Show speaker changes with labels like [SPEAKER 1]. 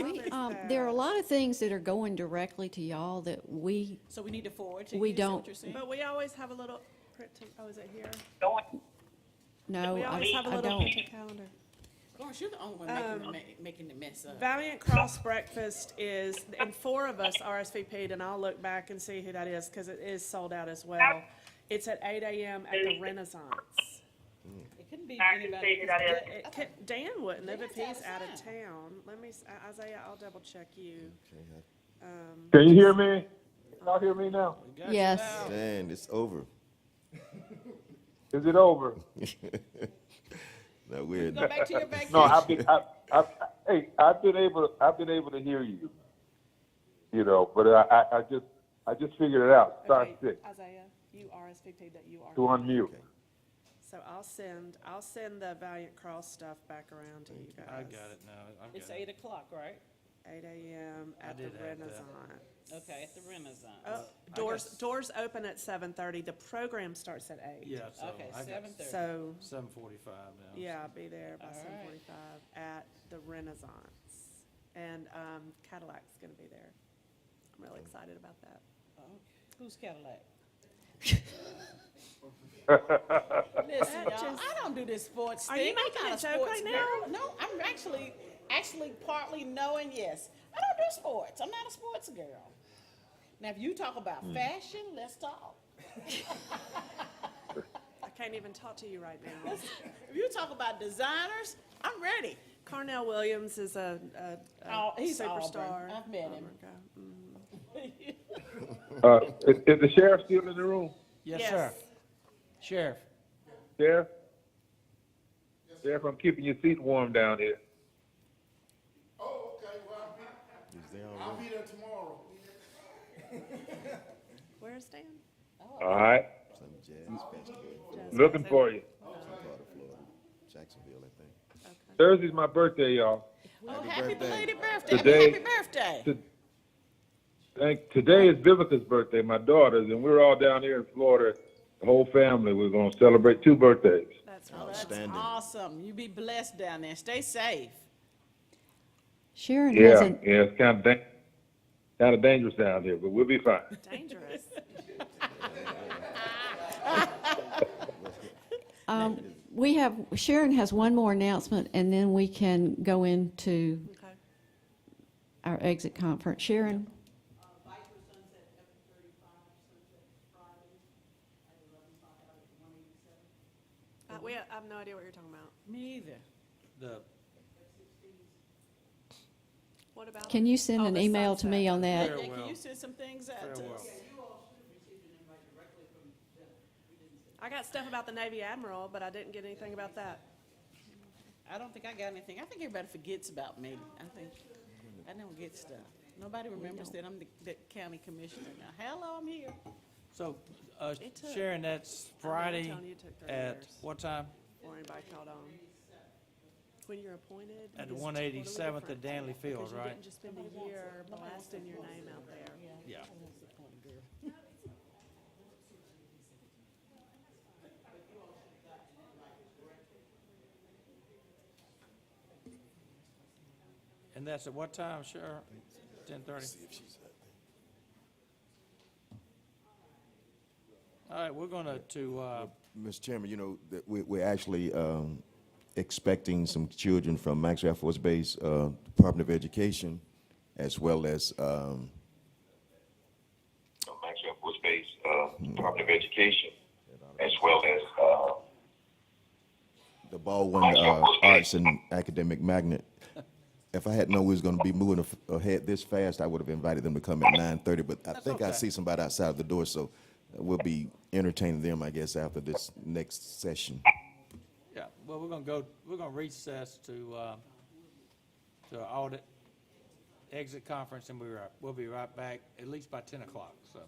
[SPEAKER 1] We, um, there are a lot of things that are going directly to y'all that we,
[SPEAKER 2] So we need to forward to you?
[SPEAKER 1] We
[SPEAKER 2] is that what
[SPEAKER 1] don't-
[SPEAKER 2] you're saying?
[SPEAKER 3] But we always have a little, print to- oh, is it here?
[SPEAKER 1] no,
[SPEAKER 3] We
[SPEAKER 1] Oh, I
[SPEAKER 3] always have a
[SPEAKER 1] I
[SPEAKER 3] little
[SPEAKER 1] don't.
[SPEAKER 3] print to calendar.
[SPEAKER 2] Lawrence, you're the only one making,
[SPEAKER 3] Um,
[SPEAKER 2] the ma- making the mess up.
[SPEAKER 3] Valiant Cross Breakfast is, and four of us RSVP'd, and I'll look back and see who that is, because it is sold out as well. It's at eight AM at the Renaissance.
[SPEAKER 2] It couldn't be
[SPEAKER 4] I can
[SPEAKER 2] anybody.
[SPEAKER 4] see who that
[SPEAKER 2] because-
[SPEAKER 3] It could- Dan wouldn't have if
[SPEAKER 2] Dan's
[SPEAKER 3] he's
[SPEAKER 2] out
[SPEAKER 3] out
[SPEAKER 2] of
[SPEAKER 3] of town. Let me, s- I- Isaiah, I'll double check you.
[SPEAKER 5] Can you hear me? Y'all hear me now?
[SPEAKER 1] Yes,
[SPEAKER 6] Man, it's over.
[SPEAKER 5] Is it over?
[SPEAKER 6] Not weird.
[SPEAKER 2] Go back to your vacation.
[SPEAKER 5] No, I've been, I, I, hey, I've been able, I've been able to hear you. You know, but I, I, I just, I just figured it out. Star
[SPEAKER 3] Okay,
[SPEAKER 5] six
[SPEAKER 3] Isaiah, you RSVP'd that you are.
[SPEAKER 5] to unmute.
[SPEAKER 3] So I'll send, I'll send the Valiant Cross stuff back around to you guys.
[SPEAKER 7] I got it now. I've
[SPEAKER 2] It's
[SPEAKER 7] got
[SPEAKER 2] eight o'clock, right?
[SPEAKER 3] Eight AM at the
[SPEAKER 7] did add that.
[SPEAKER 3] Renaissance.
[SPEAKER 2] Okay, at the Renaissance.
[SPEAKER 3] Oh, doors, doors open at seven thirty, the program starts at eight.
[SPEAKER 7] Yeah, so
[SPEAKER 2] Okay,
[SPEAKER 7] I got
[SPEAKER 2] seven thirty.
[SPEAKER 3] So,
[SPEAKER 7] seven forty-five now.
[SPEAKER 3] yeah, I'll be there by
[SPEAKER 2] All
[SPEAKER 3] seven
[SPEAKER 2] right.
[SPEAKER 3] forty-five at the Renaissance. And, um, Cadillac's gonna be there. I'm really excited about that.
[SPEAKER 2] Who's Oh, Cadillac? Listen, y'all, I don't do this sports
[SPEAKER 3] Are
[SPEAKER 2] thing.
[SPEAKER 3] you
[SPEAKER 2] I'm
[SPEAKER 3] making
[SPEAKER 2] not
[SPEAKER 3] a joke
[SPEAKER 2] sports
[SPEAKER 3] right
[SPEAKER 2] girl.
[SPEAKER 3] now?
[SPEAKER 2] No, I'm actually, actually partly knowing, yes. I don't do sports. I'm not a sports girl. Now, if you talk about fashion, let's talk.
[SPEAKER 3] I can't even talk to you right now.
[SPEAKER 2] If you talk about designers, I'm ready.
[SPEAKER 3] Carnell Williams is a, a,
[SPEAKER 2] Oh,
[SPEAKER 3] a
[SPEAKER 2] he's Auburn.
[SPEAKER 3] superstar. Oh
[SPEAKER 2] I've met him.
[SPEAKER 3] Okay.
[SPEAKER 5] Uh, is, is the sheriff still in the room?
[SPEAKER 7] Yes, sir. Sheriff,
[SPEAKER 5] Sheriff? Sheriff, I'm keeping your seat warm down here.
[SPEAKER 8] Oh, okay, well,
[SPEAKER 6] Is there
[SPEAKER 8] I'll
[SPEAKER 6] already?
[SPEAKER 8] be there tomorrow.
[SPEAKER 3] Where's Dan?
[SPEAKER 5] All right,
[SPEAKER 6] Some jazz festival in
[SPEAKER 5] looking for you.
[SPEAKER 6] some part of Florida, Jacksonville, I think.
[SPEAKER 5] Thursday's my birthday, y'all.
[SPEAKER 2] Oh, happy
[SPEAKER 6] birthday.
[SPEAKER 2] belated birthday.
[SPEAKER 5] Today-
[SPEAKER 2] Happy birthday.
[SPEAKER 5] To- Thank, today is Vivica's birthday, my daughter's, and we're all down here in Florida, the whole family, we're gonna celebrate two birthdays.
[SPEAKER 3] That's
[SPEAKER 2] Oh, that's
[SPEAKER 6] Outstanding.
[SPEAKER 2] awesome. You be blessed down there. Stay safe.
[SPEAKER 1] Sharon
[SPEAKER 5] Yeah,
[SPEAKER 1] hasn't,
[SPEAKER 5] yeah, it's kind of dang, kind of dangerous down here, but we'll be fine.
[SPEAKER 3] dangerous.
[SPEAKER 1] um, we have, Sharon has one more announcement, and then we can go into
[SPEAKER 3] Okay.
[SPEAKER 1] our exit conference. Sharon?
[SPEAKER 3] Uh, we, I have no idea what you're talking about.
[SPEAKER 2] Me either.
[SPEAKER 7] the,
[SPEAKER 3] What about?
[SPEAKER 1] Can you send
[SPEAKER 3] Oh,
[SPEAKER 1] an
[SPEAKER 3] the
[SPEAKER 1] email to me
[SPEAKER 3] sunset.
[SPEAKER 1] on that?
[SPEAKER 7] Farewell.
[SPEAKER 2] Can you send some things out to
[SPEAKER 7] farewell.
[SPEAKER 2] us?
[SPEAKER 3] I got stuff about the Navy Admiral, but I didn't get anything about that.
[SPEAKER 2] I don't think I got anything. I think everybody forgets about me. I think, I don't get stuff. Nobody remembers that I'm the, the county commissioner now. Hello, I'm here.
[SPEAKER 7] So, uh,
[SPEAKER 3] It took-
[SPEAKER 7] Sharon, that's
[SPEAKER 3] I'm not
[SPEAKER 7] Friday
[SPEAKER 3] telling you, it took thirty
[SPEAKER 7] at
[SPEAKER 3] years.
[SPEAKER 7] what time?
[SPEAKER 3] Or anybody called on. When you're appointed.
[SPEAKER 7] At
[SPEAKER 3] it's
[SPEAKER 7] one eighty-seventh
[SPEAKER 3] totally
[SPEAKER 7] at Danley
[SPEAKER 3] different, Because
[SPEAKER 7] Fields,
[SPEAKER 3] you
[SPEAKER 7] right?
[SPEAKER 3] didn't just spend a year blasting your name out there.
[SPEAKER 7] Yeah. And that's at what time, Sheriff? Ten thirty? All right, we're gonna to, uh,
[SPEAKER 6] Mr. Chairman, you know, that we, we're actually, um, expecting some children from Maxwell Air Force Base, uh, Department of Education, as well as, um,
[SPEAKER 9] Max Air Force Base, uh, Department of Education, as well as, uh,
[SPEAKER 6] the Baldwin, uh, Arts and Academic Magnet. If I had known we was gonna be moving af- ahead this fast, I would have invited them to come at nine thirty, but I think I
[SPEAKER 7] okay.
[SPEAKER 6] see somebody outside the door, so we'll be entertaining them, I guess, after this next session.
[SPEAKER 7] yeah, well, we're gonna go, we're gonna recess to, uh, to our audit, exit conference, and we're, we'll be right back, at least by ten o'clock, so.